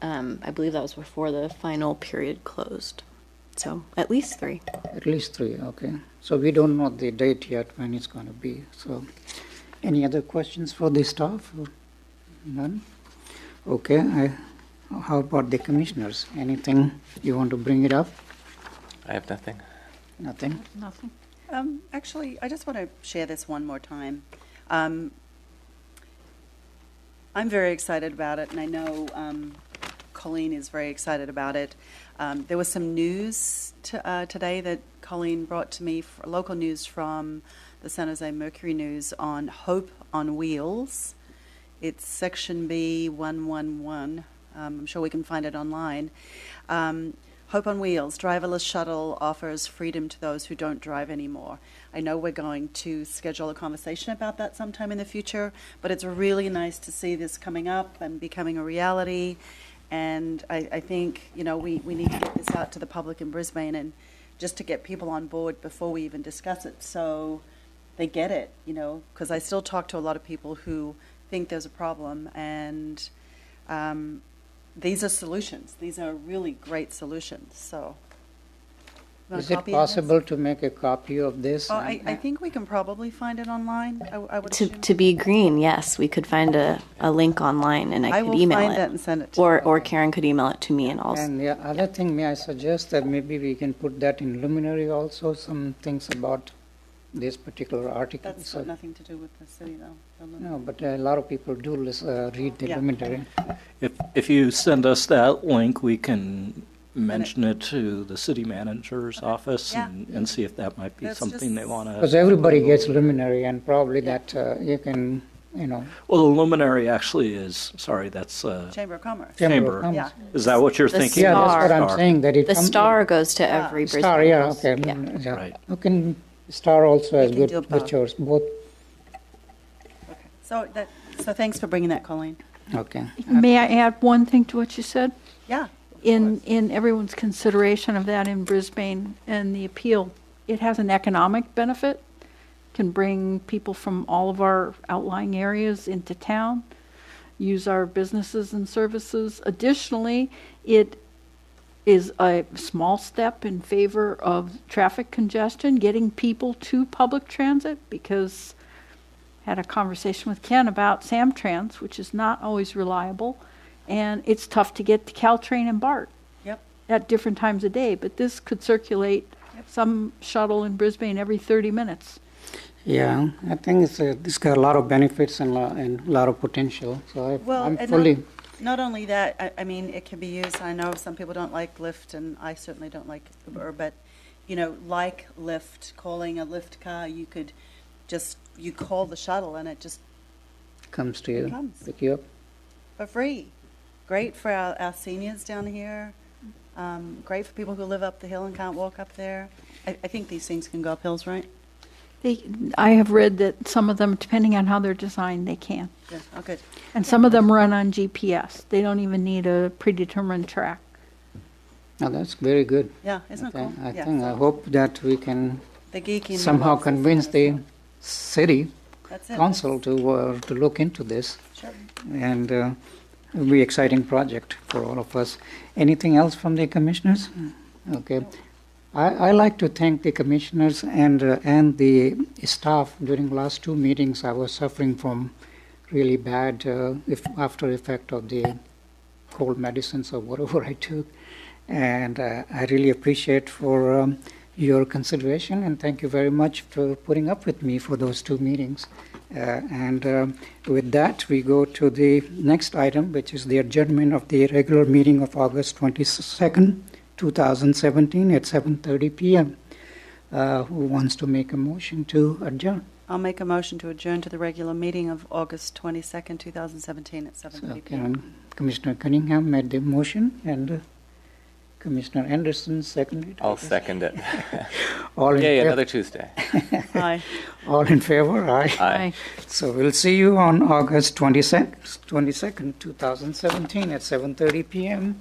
Um, I believe that was before the final period closed. So at least three. At least three, okay. So we don't know the date yet when it's going to be. So, any other questions for the staff? None? Okay, I, how about the commissioners? Anything you want to bring it up? I have nothing. Nothing? Nothing. Um, actually, I just want to share this one more time. Um, I'm very excited about it, and I know um, Colleen is very excited about it. Um, there was some news to, uh, today that Colleen brought to me, f local news from the San Jose Mercury News on Hope on Wheels. It's Section B 111. Um, I'm sure we can find it online. Um, Hope on Wheels, driverless shuttle offers freedom to those who don't drive anymore. I know we're going to schedule a conversation about that sometime in the future, but it's really nice to see this coming up and becoming a reality. And I, I think, you know, we, we need to get this out to the public in Brisbane and just to get people on board before we even discuss it. So they get it, you know, because I still talk to a lot of people who think there's a problem, and um, these are solutions. These are really great solutions. So, You want a Is it copy of this? possible to make a copy of this? Oh, I, and- I think we can probably find it online. I, I would. To, assume. to be green, yes, we could find a, a link online and I, I could will email find it. that and send it to Or, or Karen could email it to me and uh, also. And the other thing, may I suggest that maybe we can put that in luminary also, some things about this particular article. That's So- got nothing to do with the city, though. The lu- No, but a lot of people do lis- uh, read the Yeah. luminary. If, if you send us that link, we can mention it to the city manager's office Yeah. and, and see if that might be That's something they just- want Because to. everybody gets luminary and probably that uh, you can, you know, Well, the luminary actually is, sorry, that's, uh, Chamber of Commerce. Chamber of Chamber. Commerce. Yeah. is that what you're The thinking? Yeah, that's Star. what I'm saying, that it. The come- Ah, star goes to every Brisbane. Star, yeah, house. okay. Yeah. mm, yeah. Right. You can, star also has can good do both. pictures, both, Okay. So that. So thanks for bringing that, Colleen. okay. May I add one thing to what you said? Yeah. In, in everyone's consideration of that in Brisbane and the appeal, it has an economic benefit, can bring people from all of our outlying areas into town, use our businesses and services. Additionally, it is a small step in favor of traffic congestion, getting people to public transit, because had a conversation with Ken about Samtrans, which is not always reliable, and it's tough to get to Caltrain and BART Yep. at different times of day, but this could circulate some shuttle in Brisbane every 30 minutes. Yeah, I think it's, a- it's got a lot of benefits and, lo- and a lot of potential, so I- Well, I'm and fully, Not only that, I, I mean, it can be used, I know some people don't like Lyft, and I certainly don't like Uber, but, you know, like Lyft, calling a Lyft car, you could just, you call the shuttle and it just, comes to you, comes. pick you up. for free. Great for our, our seniors down here, um, great for people who live up the hill and can't walk up there. I, I think these things can go up hills, right? They, I have read that some of them, depending on how they're designed, they can. Yeah, oh, good. And some of them run on GPS. They don't even need a predetermined track. Now, Oh, that's very good. Yeah, isn't it cool? Okay, I Yeah. think, I hope that we can The geeky. in me somehow loves this. convince the city That's it. council to, uh, to look into this. Sure. and uh, it'll be exciting project for all of us. Anything else from the commissioners? Okay. I, I like to thank the commissioners and uh, and the staff. During last two meetings, I was suffering from really bad uh, if after effect of the cold medicines or whatever I took, and uh, I really appreciate for um, your consideration and thank you very much for putting up with me for those two meetings. Uh, and um with that, we go to the next item, which is the adjournment of the regular meeting of August 22nd, 2017, at 7:30 p.m. Uh, who wants to make a motion to adjourn? I'll make a motion to adjourn to the regular meeting of August 22nd, 2017 at So 7:30 p.m. Karen, Commissioner Cunningham made the motion, and uh, Commissioner Anderson seconded. I'll second it. All in Yay, fav- another Tuesday. Aye. All in favor? Aye. Aye. So we'll see you on August 22nd, 22nd, 2017 at 7:30 PM.